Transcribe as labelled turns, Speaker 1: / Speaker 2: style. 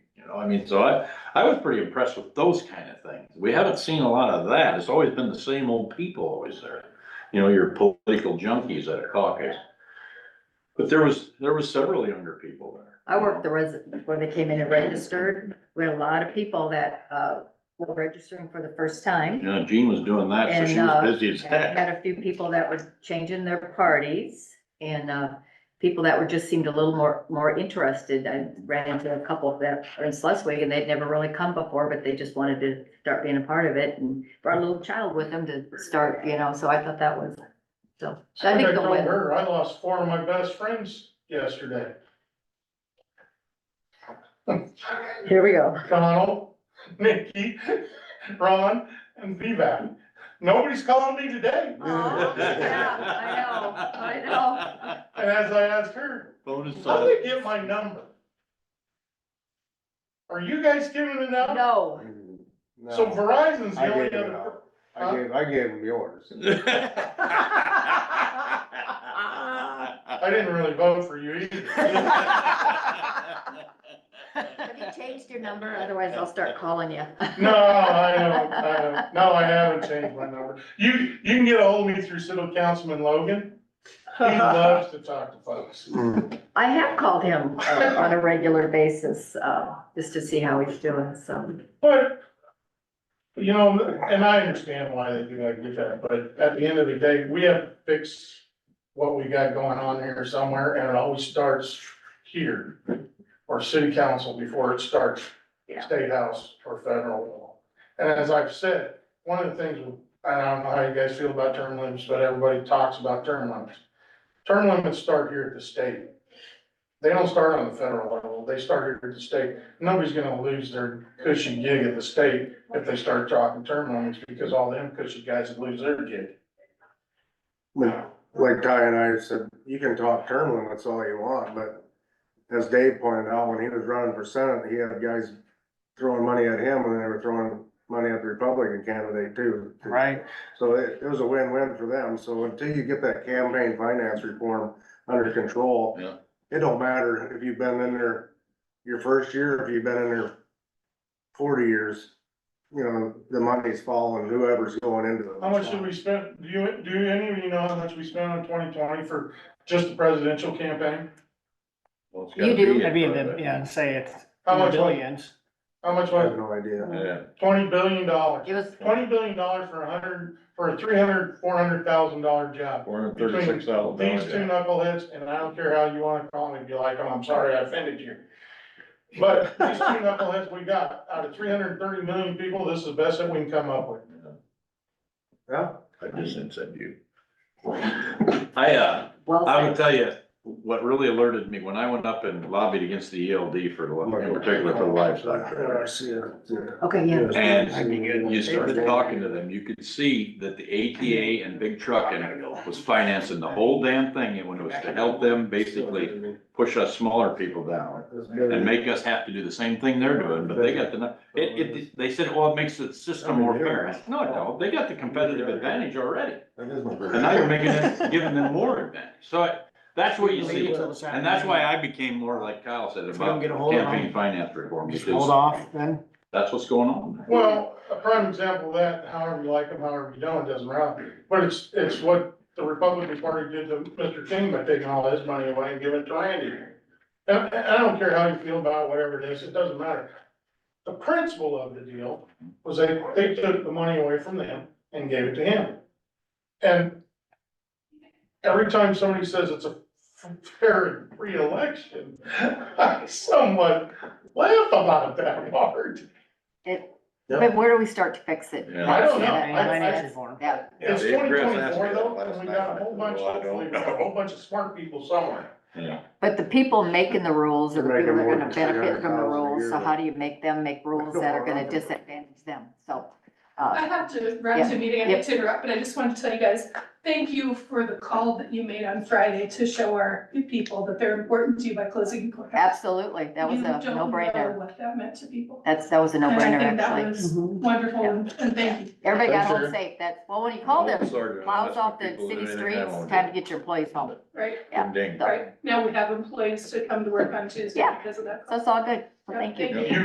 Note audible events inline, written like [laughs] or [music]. Speaker 1: know, I mean, so I, I was pretty impressed with those kind of things. We haven't seen a lot of that. It's always been the same old people always there. You know, your political junkies at a caucus. But there was, there was several younger people there.
Speaker 2: I worked the resident, when they came in and registered, we had a lot of people that, uh, were registering for the first time.
Speaker 1: Yeah, Jean was doing that, so she
Speaker 2: And, uh,
Speaker 1: was busy as
Speaker 2: And
Speaker 1: heck.
Speaker 2: Had a few people that were changing their parties and, uh, people that were, just seemed a little more, more interested. I ran into a couple that are in Sleswig and they'd never really come before, but they just wanted to start being a part of it and brought a little child with them to start, you know, so I thought that was, so. I think
Speaker 3: I
Speaker 2: the
Speaker 3: told
Speaker 2: win.
Speaker 3: her, I lost four of my best friends yesterday.
Speaker 2: Here we go.
Speaker 3: Donald, [laughs] Nikki, Ron, and Vivek. Nobody's calling me today.
Speaker 2: Aw,
Speaker 4: [laughs]
Speaker 2: yeah, I know, I know.
Speaker 3: And as I asked her,
Speaker 1: Bonus
Speaker 3: how
Speaker 1: time.
Speaker 3: did they get my number? Are you guys giving it out?
Speaker 2: No.
Speaker 3: So
Speaker 4: No,
Speaker 3: Verizon's
Speaker 4: I
Speaker 3: the only
Speaker 4: gave it
Speaker 3: other.
Speaker 4: out. I gave, I gave him yours.
Speaker 1: [laughs]
Speaker 2: [laughs]
Speaker 3: I didn't really vote for you either.
Speaker 2: Have you changed your number? Otherwise I'll start calling [laughs] you.
Speaker 3: No, I don't, I don't, no, I haven't changed my number. You, you can get a hold of me through City Councilman Logan.
Speaker 2: [laughs]
Speaker 3: He loves to talk to folks.
Speaker 2: I have
Speaker 1: [laughs]
Speaker 2: called him uh,
Speaker 1: Uh-huh.
Speaker 2: on a regular basis, uh, just to see how he's doing, so.
Speaker 3: But, you know, and I understand why they do that, I get that, but at the end of the day, we have to fix what we got going on here somewhere, and it always starts here, or city council before it starts
Speaker 2: Yeah.
Speaker 3: state house or federal law. And as I've said, one of the things, and I don't know how you guys feel about term limits, but everybody talks about term limits. Term limits start here at the state. They don't start on the federal level, they start here at the state. Nobody's gonna lose their cushy gig at the state if they start talking term limits, because all them cushy guys would lose their gig.
Speaker 4: Like like Ty and I said, you can talk term limits all you want, but as Dave pointed out, when he was running for senate, he had guys throwing money at him and they were throwing money at the Republican candidate too.
Speaker 5: Right,
Speaker 4: So it, it was a win-win for them. So until you get that campaign finance reform under control,
Speaker 1: Yeah.
Speaker 4: it don't matter if you've been in there your first year, if you've been in there forty years, you know, the money's falling, whoever's going into it.
Speaker 3: How much did we spend, do you, do any of you know how much we spent on twenty twenty for just the presidential campaign?
Speaker 1: Well, it's
Speaker 2: You
Speaker 1: gotta
Speaker 2: do.
Speaker 1: be it,
Speaker 5: maybe, in
Speaker 1: but-
Speaker 5: the- yeah, say it's
Speaker 3: How much was-
Speaker 5: billions.
Speaker 3: How much
Speaker 4: I
Speaker 3: was
Speaker 4: have no idea.
Speaker 1: Yeah.
Speaker 3: it? Twenty billion dollars,
Speaker 2: It was,
Speaker 3: twenty billion dollars for a hundred, for a three hundred, four hundred thousand dollar job.
Speaker 1: Four hundred thirty-six thousand
Speaker 3: These two
Speaker 1: dollars.
Speaker 3: knuckleheads, and I don't care how you wanna call them, if you like them, I'm sorry I offended you. But these two knuckleheads we got, out of three hundred and thirty million people, this is the best that we can come up with.
Speaker 4: Yeah,
Speaker 1: I just said you. I, uh,
Speaker 2: well,
Speaker 1: I
Speaker 2: said.
Speaker 1: would tell you, what really alerted me, when I went up and lobbied against the ELD for, the- in particular for the livestock
Speaker 4: Yeah, I
Speaker 1: trade.
Speaker 4: see it. Yeah.
Speaker 2: okay, yeah,
Speaker 5: That'd be
Speaker 1: And
Speaker 5: good.
Speaker 1: you started talking to them, you could see that the ATA and big trucking was financing the whole damn thing, and when it was to help them basically push us smaller people down and make us have to do the same thing they're doing, but they got the, nu- it, it, they said, well, it makes the system more fair. I said, No, it don't, they got the competitive advantage already.
Speaker 4: That is my
Speaker 1: And now you're making them, giving them more advantage. So I- that's what you see.
Speaker 5: Leave it till this
Speaker 1: And that's why
Speaker 5: afternoon.
Speaker 1: I became more like Kyle said
Speaker 5: If we don't
Speaker 1: about
Speaker 5: get a hold of
Speaker 1: campaign
Speaker 5: them,
Speaker 1: finance reform,
Speaker 5: hold
Speaker 1: because
Speaker 5: off then.
Speaker 1: that's what's going on.
Speaker 3: Well, a prime example of that, however you like them, however you don't, it doesn't matter. But it's, it's what the Republican Party did to Mr. King by taking all his money away and giving it to Randy. And, and I don't care how you feel about it, whatever it is, it doesn't matter. The principle of the deal was they, they took the money away from them and gave it to him. And every time somebody says it's a fair and free election, [laughs] I somewhat laugh about that part.
Speaker 2: but where do we start to fix it?
Speaker 1: Yeah.
Speaker 3: I don't know.
Speaker 2: Yeah, that's-
Speaker 5: Financial reform.
Speaker 2: Yeah,
Speaker 3: It's
Speaker 1: Yeah,
Speaker 3: twenty
Speaker 1: they addressed that
Speaker 3: twenty-four though,
Speaker 1: last
Speaker 3: and we
Speaker 1: night.
Speaker 3: got a whole bunch,
Speaker 1: Well, I don't
Speaker 3: hopefully, we got a
Speaker 1: know.
Speaker 3: whole bunch of smart people somewhere.
Speaker 1: Yeah.
Speaker 2: but the people making the rules are the people that are gonna
Speaker 4: Making more than
Speaker 2: benefit from the
Speaker 4: 300,000 a
Speaker 2: rules, so
Speaker 4: year.
Speaker 2: how do you make them make rules that are gonna disadvantage them, so. uh,
Speaker 6: I have to run to a meeting, I hate to interrupt, but I just wanted to tell you guys, thank you for the call that you made on Friday to show our people that they're important to you by closing court.
Speaker 2: Absolutely, that was
Speaker 6: You
Speaker 2: a
Speaker 6: don't know
Speaker 2: no-brainer,
Speaker 6: What that meant to people.
Speaker 2: that's, that was a
Speaker 6: And I
Speaker 2: no-brainer
Speaker 6: think that
Speaker 2: actually.
Speaker 6: was
Speaker 2: Mhm.
Speaker 6: wonderful,
Speaker 2: Yeah.
Speaker 6: and and thank you.
Speaker 2: Everybody got
Speaker 1: Thanks,
Speaker 2: home
Speaker 1: Sharon.
Speaker 2: said that, well, when you called them, plows off the city streets, time to get your employees home,
Speaker 6: Right,
Speaker 2: yeah.
Speaker 1: Ding.
Speaker 2: So
Speaker 6: right. Now we have employees to come to work on Tuesday
Speaker 2: Yeah.
Speaker 6: because of that.
Speaker 2: so it's all good, so thank you.
Speaker 6: Thank you.